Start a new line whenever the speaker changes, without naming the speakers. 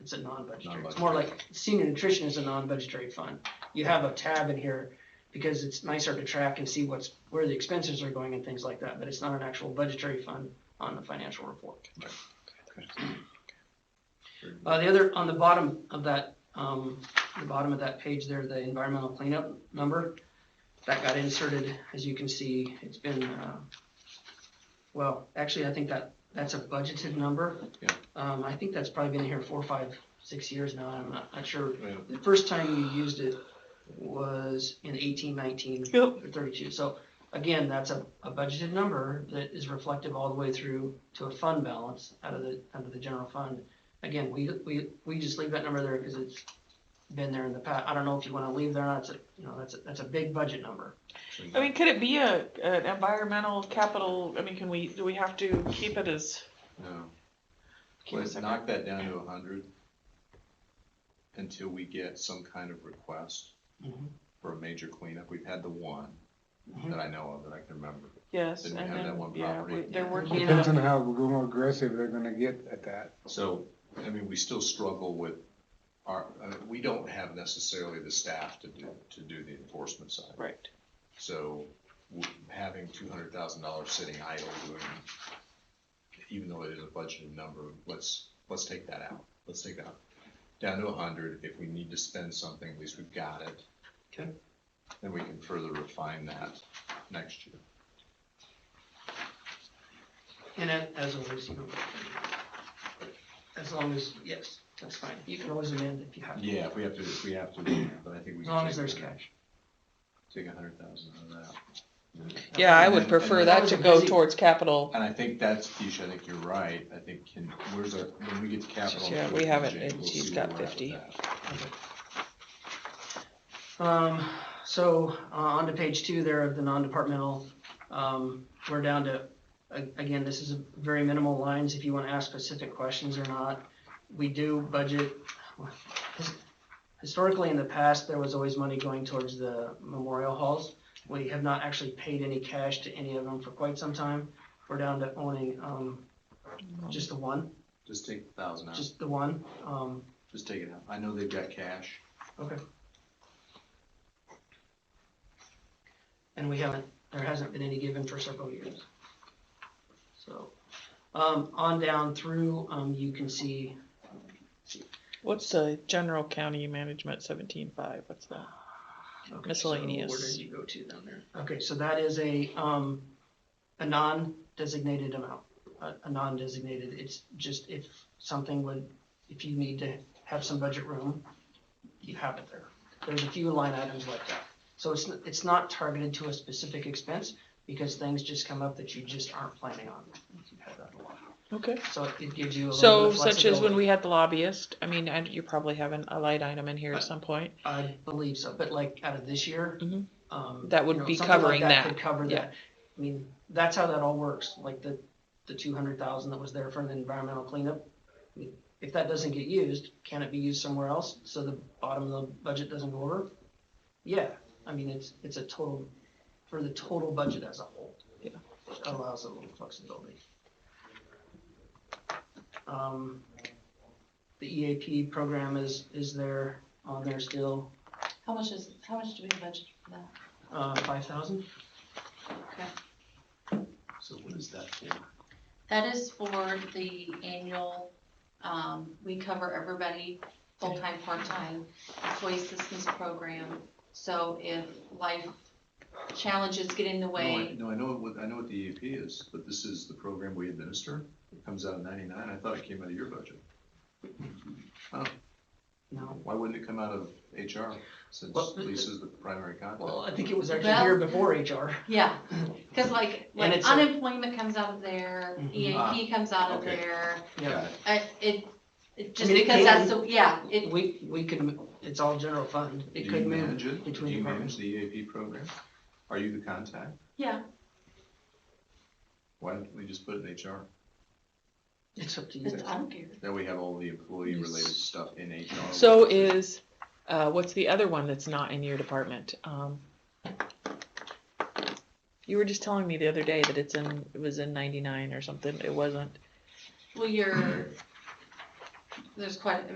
it's a non-budgetary, it's more like senior nutrition is a non-budgetary fund. You have a tab in here because it's nicer to track and see what's, where the expenses are going and things like that, but it's not an actual budgetary fund on the financial report. Uh, the other, on the bottom of that, um, the bottom of that page there, the environmental cleanup number, that got inserted, as you can see, it's been, uh, well, actually, I think that, that's a budgeted number.
Yeah.
Um, I think that's probably been here four, five, six years now, I'm not, not sure.
Yeah.
The first time you used it was in eighteen, nineteen,
Yep.
or thirty-two, so again, that's a, a budgeted number that is reflective all the way through to a fund balance out of the, out of the general fund. Again, we, we, we just leave that number there because it's been there in the past, I don't know if you wanna leave there, or not. It's a, you know, that's, a- that's a big budget number.
I mean, could it be a, an environmental capital, I mean, can we, do we have to keep it as?
No,
keep it
let's
separate?
knock that down to a hundred until we get some kind of request
Mm-hmm.
Mhm.
for a major cleanup. We've had the one
Mhm.
that I know of that I can remember.
Yes,
Then
and
we have that
then,
one
yeah,
property.
we- they're working on
Depends
it.
on how more aggressive they're gonna get at that.
So, I mean, we still struggle with our, uh, we don't have necessarily the staff to do, to do the enforcement side.
Right,
So w- having two hundred thousand dollars sitting idle doing, even though it is a budgeted number, let's, let's take that out. Let's take that down to a hundred. If we need to spend something, at least we've got it.
Okay.
Then we can further refine that next year.
And a- as always, you know, as long as, yes, that's fine, you can always amend if you have to.
Yeah, if we have to, if we have to, but I think we.
As
can
long as
take-
there's cash.
Take a hundred thousand out of that.
yeah, I
And
would
then-
prefer
and
then-
that to go towards capital,
And I think that's, Keisha, I think you're right. I think can, where's our, when we get to capital.
Yeah, we haven't, and she's got 50.
Um, so, uh, on to page two there of the non-departmental, um, we're down to, a- again, this is a very minimal lines, if you wanna ask specific questions or not. We do budget, historically in the past, there was always money going towards the memorial halls. We have not actually paid any cash to any of them for quite some time, we're down to owning, um, just the one,
Just take the thousand out.
just the one, um,
Just take it out. I know they've got cash.
Okay. And we haven't, there hasn't been any given for several years. So, um, on down through, um, you can see,
what's the general county management seventeen-five, what's that?
okay, so
Miscellaneous.
Where did you go to down there? Okay, so that is a, um, a non-designated amount, a, a non-designated, it's just if something would, if you need to have some budget room, you have it there. There's a few line items like that. So it's, n- it's not targeted to a specific expense because things just come up that you just aren't planning on. You've had that a lot.
Okay.
So it- it gives you a little
So
bit of
such as when
flexibility.
we had the lobbyist, I mean, and you probably have an, a light item in here
Uh,
at some point.
I believe so, but like out of this year.
Mhm.
um,
That would
you know,
be
something like
covering that.
Could cover
Yeah.
that. I mean, that's how that all works, like the, the two hundred thousand that was there for the environmental cleanup. I mean, If that doesn't get used, can it be used somewhere else so the bottom of the budget doesn't go over? Yeah, I mean, it's, it's a total, for the total budget as a whole.
Yeah.
It Allows a little flexibility. Um, The EAP program is, is there, on there Um, still,
How much is, how much do we budget for that?
uh, five thousand?
So what is that for?
That is for the annual, um, we cover everybody, full-time, part-time, employee assistance program. So if life challenges get in the
No, I,
way,
no, I know what, I know what the EAP is, but this is the program we administer. It comes out of ninety-nine. I thought it came out of your budget.
No,
Why wouldn't it come out of HR since
Well, the-
Lisa's the primary
well,
contact?
I think it was actually
Well-
here before HR.
yeah, cause like, like
it's a-
unemployment comes out of there,
Mhm.
EAP comes out of
okay.
there.
Got it.
I, it, it, just
mean, it
because
can-
that's, the yeah, it,
We, we could, m- it's all general fund,
Do
it
you
could move
manage it? Do
between
you
departments.
manage the EAP program? Are you the contact?
yeah,
Why don't we just put it in HR?
It's up to you
it's, I
guys.
don't care.
Then we have all the employee-related stuff in HR.
So is, uh, what's the other one that's not in your department? Um, you were just telling me the other day that it's in, it was in ninety-nine or something, it wasn't.
Well, you're, there's quite, I mean,